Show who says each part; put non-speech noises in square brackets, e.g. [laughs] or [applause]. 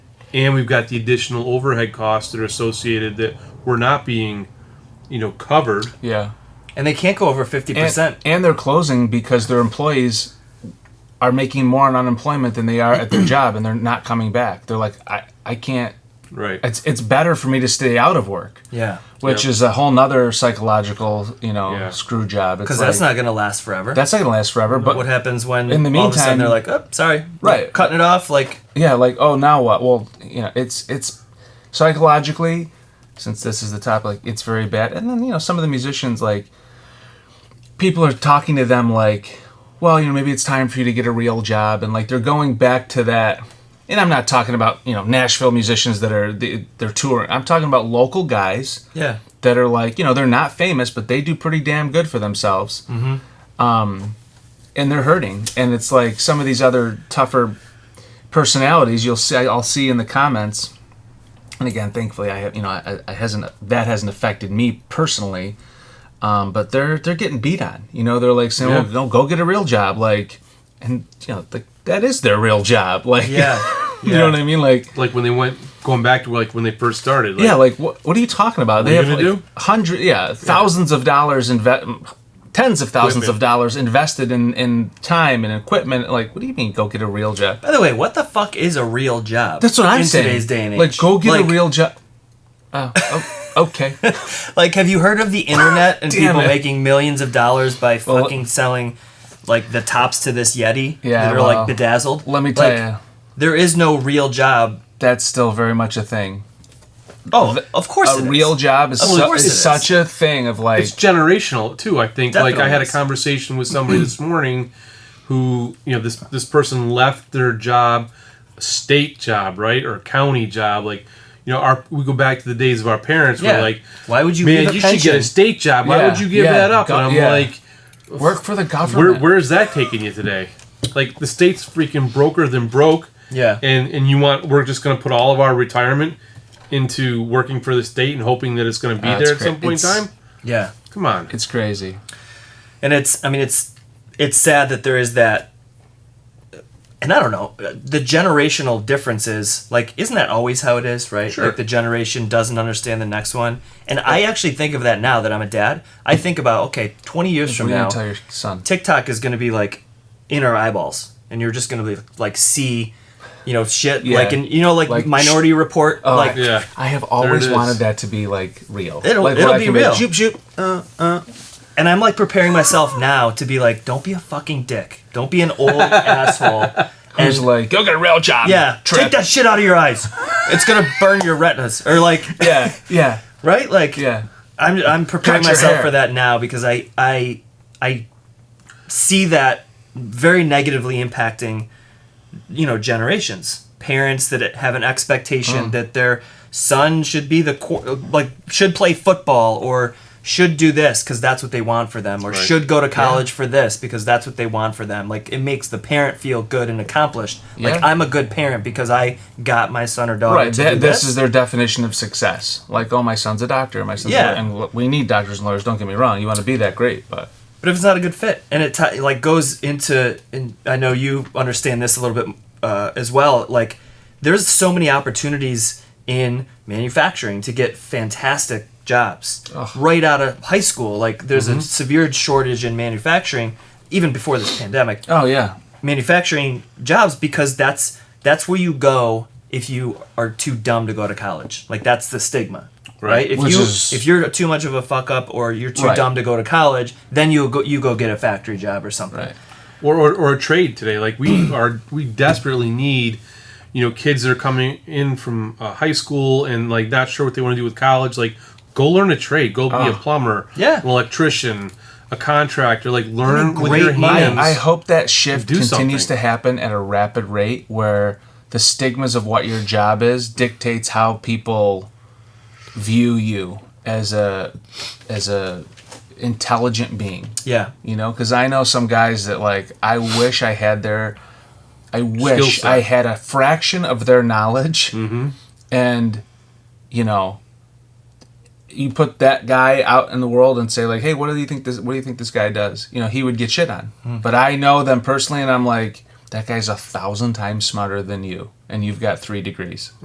Speaker 1: and we've got the additional overhead costs that are associated that were not being, you know, covered.
Speaker 2: Yeah.
Speaker 3: and they can't go over fifty
Speaker 2: And,
Speaker 3: percent.
Speaker 2: and they're closing because their employees are making more on unemployment than they are at their job and they're not coming back. They're like, I, I can't
Speaker 1: Right.
Speaker 2: it's it's better for me to stay out of work.
Speaker 3: Yeah,
Speaker 2: Which
Speaker 1: Yeah.
Speaker 2: is a whole nother psychological, you know,
Speaker 1: Yeah.
Speaker 2: screw job.
Speaker 3: because that's not going to last forever.
Speaker 2: that's not gonna last forever. But
Speaker 3: what happens when
Speaker 2: In the
Speaker 3: all of a sudden
Speaker 2: meantime-
Speaker 3: they're like, "Oh, sorry,
Speaker 2: Right.
Speaker 3: cutting it off." Like,
Speaker 2: yeah, like oh now what? Well, you know, it's it's psychologically since this is the topic, like, it's very bad. And then you know, some of the musicians like people are talking to them like, well, you know, maybe it's time for you to get a real job, and like they're going back to that. And I'm not talking about you know Nashville musicians that are they, they're touring. I'm talking about local guys [laughs]
Speaker 3: yeah,
Speaker 2: that are like you know they're not famous but they do pretty damn good for themselves mm-hmm. um, and they're hurting and it's like some of these other tougher personalities you'll see i'll see in the comments and again thankfully i have you know I, I hasn't that hasn't affected me personally um, but they're they're getting beat on you know they're like saying
Speaker 1: Yeah.
Speaker 2: well no go get a real job like and you know like that is their real job [laughs] like
Speaker 3: yeah,
Speaker 2: you know what i mean like
Speaker 1: Like when they went going back to like when they first started. Like,
Speaker 2: yeah, like what? What are you talking about? They
Speaker 1: you
Speaker 2: have
Speaker 1: gonna
Speaker 2: like
Speaker 1: do?
Speaker 2: hundred, yeah, thousands of dollars inve- tens of thousands of
Speaker 1: Equipment.
Speaker 2: dollars invested in in time and equipment. Like, what do you mean? Go get a real job.
Speaker 3: By the way, what the fuck is a real job?
Speaker 2: That's what I'm
Speaker 3: in
Speaker 2: saying.
Speaker 3: Today's day and age,
Speaker 2: Like, go get
Speaker 3: Like-
Speaker 2: a real job. Oh, oh,
Speaker 3: [laughs]
Speaker 2: okay.
Speaker 3: Like, have you heard of
Speaker 2: [laughs]
Speaker 3: the internet and
Speaker 2: Damn
Speaker 3: people
Speaker 2: it.
Speaker 3: making millions of dollars by
Speaker 2: Well,
Speaker 3: fucking selling like the tops to this Yeti
Speaker 2: Yeah,
Speaker 3: that are
Speaker 2: well,
Speaker 3: like bedazzled?
Speaker 2: Let me tell
Speaker 3: Like,
Speaker 2: you,
Speaker 3: there is no real job.
Speaker 2: that's still very much a thing.
Speaker 3: Oh, of course,
Speaker 2: A
Speaker 3: it is.
Speaker 2: real job is,
Speaker 3: Of
Speaker 2: su-
Speaker 3: course
Speaker 2: is
Speaker 3: it is.
Speaker 2: such a thing of like,
Speaker 1: it's generational too. I think. Like I
Speaker 3: Definitely
Speaker 1: had a
Speaker 3: is.
Speaker 1: conversation with somebody this morning, who you know this this person left their job, state job, right, or county job. Like, you know, our we go back to the days of our parents.
Speaker 3: Yeah.
Speaker 1: Where like,
Speaker 3: Why would you leave
Speaker 1: man,
Speaker 3: a
Speaker 1: you should
Speaker 3: pension?
Speaker 1: get a state job. Why
Speaker 2: Yeah,
Speaker 1: would you give
Speaker 2: yeah,
Speaker 1: that up?
Speaker 2: go-
Speaker 1: and I'm
Speaker 2: yeah.
Speaker 1: like,
Speaker 2: work for the government.
Speaker 1: where where's that taking you today? Like the state's freaking broker than broke.
Speaker 3: Yeah.
Speaker 1: and and you want we're just going to put all of our retirement into working for the state and hoping that it's going to be
Speaker 2: Ah, it's
Speaker 1: there at
Speaker 2: great.
Speaker 1: some point in
Speaker 2: It's-
Speaker 1: time.
Speaker 3: yeah,
Speaker 1: Come on,
Speaker 2: it's crazy.
Speaker 3: and it's. I mean, it's. It's sad that there is that. And I don't know the generational differences. Like, isn't that always how it is, right?
Speaker 1: Sure.
Speaker 3: Like the generation doesn't understand the next one. And I actually think of that now that I'm a dad. I think about okay, 20 years
Speaker 2: What
Speaker 3: from
Speaker 2: do you
Speaker 3: now,
Speaker 2: tell your son?
Speaker 3: TikTok is going to be like in our eyeballs, and you're just going to be like see, you know, shit
Speaker 2: Yeah.
Speaker 3: like in you know like,
Speaker 2: Like,
Speaker 3: Minority Report,
Speaker 2: Oh,
Speaker 3: like
Speaker 1: yeah.
Speaker 2: I have always
Speaker 1: is.
Speaker 2: wanted that to be like real.
Speaker 3: It'll-
Speaker 2: like, where
Speaker 3: it'll
Speaker 2: I
Speaker 3: be
Speaker 2: can like,
Speaker 3: real.
Speaker 2: Shoop, shoop.
Speaker 3: and I'm like preparing myself now to be like, don't be a fucking dick, don't be an
Speaker 2: [laughs]
Speaker 3: old asshole,
Speaker 2: Who's
Speaker 3: and
Speaker 2: like, go get a real job.
Speaker 3: yeah,
Speaker 2: trip.
Speaker 3: take that shit out of your eyes. It's gonna burn your retinas, or like
Speaker 2: [laughs] Yeah, yeah,
Speaker 3: right, like
Speaker 2: yeah.
Speaker 3: I'm I'm preparing
Speaker 2: Cut your
Speaker 3: myself
Speaker 2: hair.
Speaker 3: for that now because I I I see that very negatively impacting you know generations parents that have an expectation
Speaker 2: Mm.
Speaker 3: that their son should be the cor- like should play football or should do this because that's what they want for them or
Speaker 1: Right.
Speaker 3: should go to college for this because that's what they want for them like it makes the parent feel good and accomplished like
Speaker 2: Yeah.
Speaker 3: i'm a good parent because i got my son or daughter
Speaker 2: Right.
Speaker 3: to
Speaker 2: that-
Speaker 3: do
Speaker 2: this
Speaker 3: this
Speaker 2: is their definition of success. Like, oh, my son's a doctor. My son's
Speaker 3: Yeah.
Speaker 2: a, and look, we need doctors and lawyers. Don't get me wrong. You want to be that great, but
Speaker 3: but if it's not a good fit and it ti like goes into and i know you understand this a little bit uh, as well like there's so many opportunities in manufacturing to get fantastic jobs right out of high school like there's a severe shortage in manufacturing even before this pandemic
Speaker 2: oh yeah,
Speaker 3: manufacturing jobs because that's that's where you go if you are too dumb to go to college. Like that's the stigma. Right.
Speaker 1: Right.
Speaker 3: If
Speaker 2: Which
Speaker 3: you
Speaker 2: is-
Speaker 3: if you're too much of a fuck up or you're too
Speaker 2: Right.
Speaker 3: dumb to go to college, then you go you go get a factory job or something.
Speaker 2: right.
Speaker 1: or, or, or a trade today. Like we are, we desperately need, you know, kids that are coming in from uh, high school and like not sure what they want to do with college. Like, go learn a trade. Go be a plumber.
Speaker 3: Yeah.
Speaker 1: An electrician, a contractor. Like learn with
Speaker 3: great
Speaker 1: your
Speaker 3: money.
Speaker 1: hands.
Speaker 2: I, I hope that shift
Speaker 1: Do
Speaker 2: continues to
Speaker 1: something.
Speaker 2: happen at a rapid rate where the stigmas of what your job is dictates how people view you as a as a intelligent being.
Speaker 3: Yeah.
Speaker 2: You know, because I know some guys that like I wish I had their, I wish
Speaker 1: set.
Speaker 2: I had a fraction of their knowledge, and you know, you put that guy out in the world and say like, hey, what do you think this? What do you think this guy does? You know, he would get shit on. But I know them personally, and I'm like, that guy's a thousand times smarter than you, and you've got three degrees.